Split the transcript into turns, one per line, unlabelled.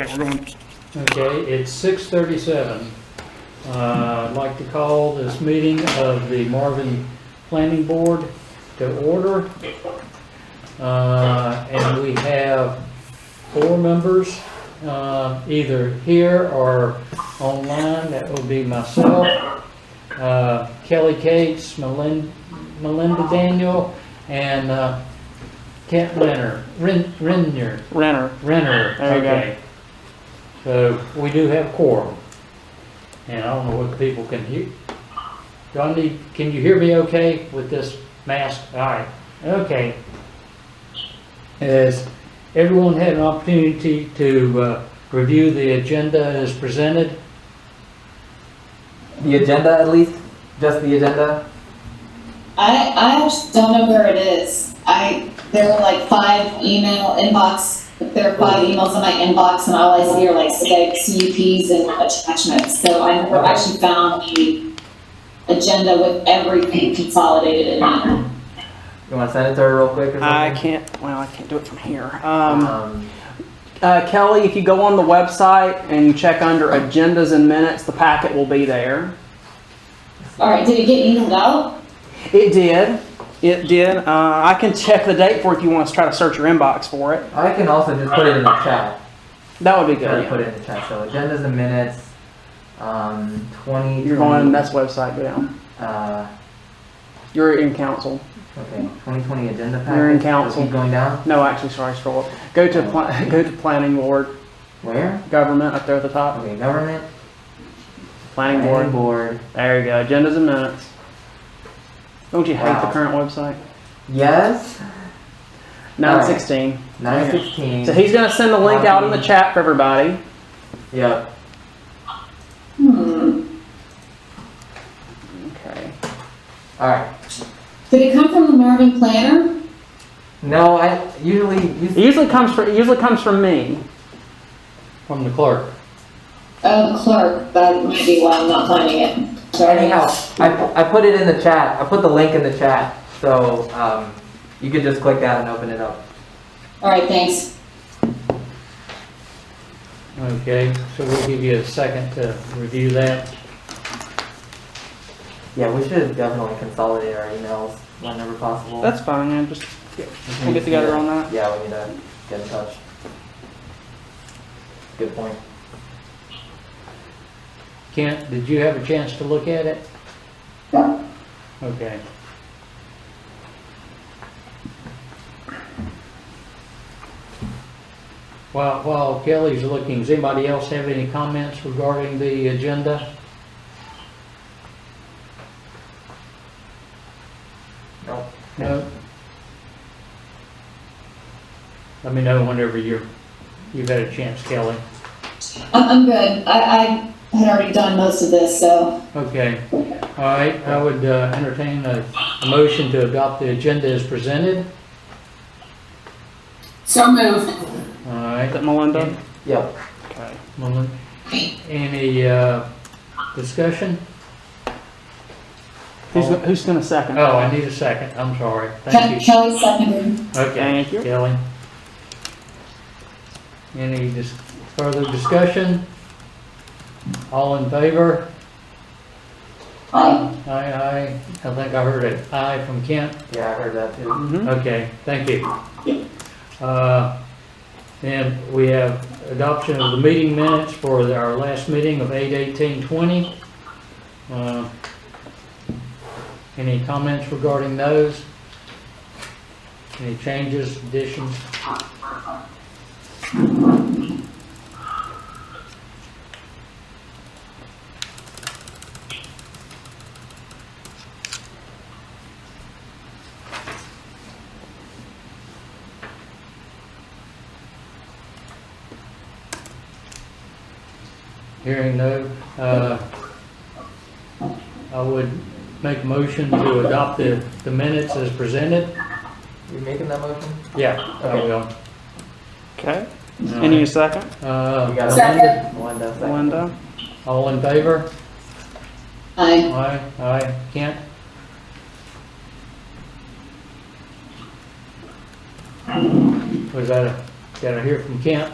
Okay, we're going,
Okay, it's six thirty-seven. Uh, I'd like to call this meeting of the Marvin Planning Board to order. Uh, and we have four members, uh, either here or online. That will be myself, uh, Kelly Cates, Melin- Melinda Daniel, and, uh, Kent Renner, Ren, Renner.
Renner,
Renner,
There you go.
okay. So we do have quorum. And I don't know what people can hear. Johnny, can you hear me okay with this mask? All right, okay. Has everyone had an opportunity to uh, review the agenda as presented?
The agenda, at least? Just the agenda?
I, I actually don't know where it is. I, there are like five email inbox, there are five emails in my inbox and all I see are like six CUPs and attachments. So I never actually found the agenda with everything consolidated in it.
You want to send it to her real quick or something?
I can't, well, I can't do it from here. Um,
Um,
Uh, Kelly, if you go on the website and you check under agendas and minutes, the packet will be there.
All right, did it get emailed out?
It did. It did. Uh, I can check the date for it if you want to try to search your inbox for it.
I can also just put it in the chat.
That would be
Try
good.
to put it in the chat. So agendas and minutes, um, 20.
You're going on that's website. Go down.
Uh,
You're in council.
okay, 2020 agenda package.
You're in
So
council.
Keep going down.
No, actually, sorry. Scroll. up. Go to pla- go to planning board,
Where?
government up there at the top.
Okay, government,
Planning board.
planning board.
There you go. Agendas and minutes. Don't you hate the
Wow.
current website?
Yes,
Nine sixteen.
916.
So he's gonna send the link out in the chat for everybody.
Yep.
Hmm.
Okay.
All right.
Did it come from the Marvin Planner?
No, I usually use.
It usually comes from it usually comes from me.
From the clerk.
Oh, clerk, that might be why I'm not finding it. Sorry.
Anyhow, I, I put it in the chat. I put the link in the chat. So um, you could just click that and open it up.
All right, thanks.
Okay, so we'll give you a second to review that.
Yeah, we should definitely consolidate our emails whenever possible.
That's fine. Man. Just
We
we'll
need
get
to
together on
do-
that.
Yeah, we need to get in touch. Good point.
Kent, did you have a chance to look at it? Okay. While, while Kelly's looking, does anybody else have any comments regarding the agenda?
Nope.
No? Let me know whenever you're, you've had a chance, Kelly.
I'm, I'm good. I, I had already done most of this, so
Okay, all right, I would uh, entertain a a motion to adopt the agenda as presented.
So moved.
All right,
Is it Melinda?
Yep.
Okay.
Well, Any uh, discussion?
Who's, go- who's gonna second?
Oh, I need a second, I'm sorry.
Ke-
Thank you.
Kelly seconded.
Okay,
Thank you.
Kelly. Any dis- further discussion? All in favor?
Aye.
Aye, aye. I think I heard it. Aye from Kent.
Yeah, I heard that too.
hmm
Okay, thank you. Uh, Then we have adoption of the meeting minutes for our last meeting of 8/18/20. Uh, Any comments regarding those? Any changes, additions? Hearing no, uh, I would make a motion to adopt the the minutes as presented.
You making that motion?
Yeah, I will.
Okay. And you second?
Uh,
We Oh, got
Second.
Melinda- Melinda, second.
Melinda.
All in favor?
Aye.
Aye, aye. Kent? Was that a, did I hear from Kent?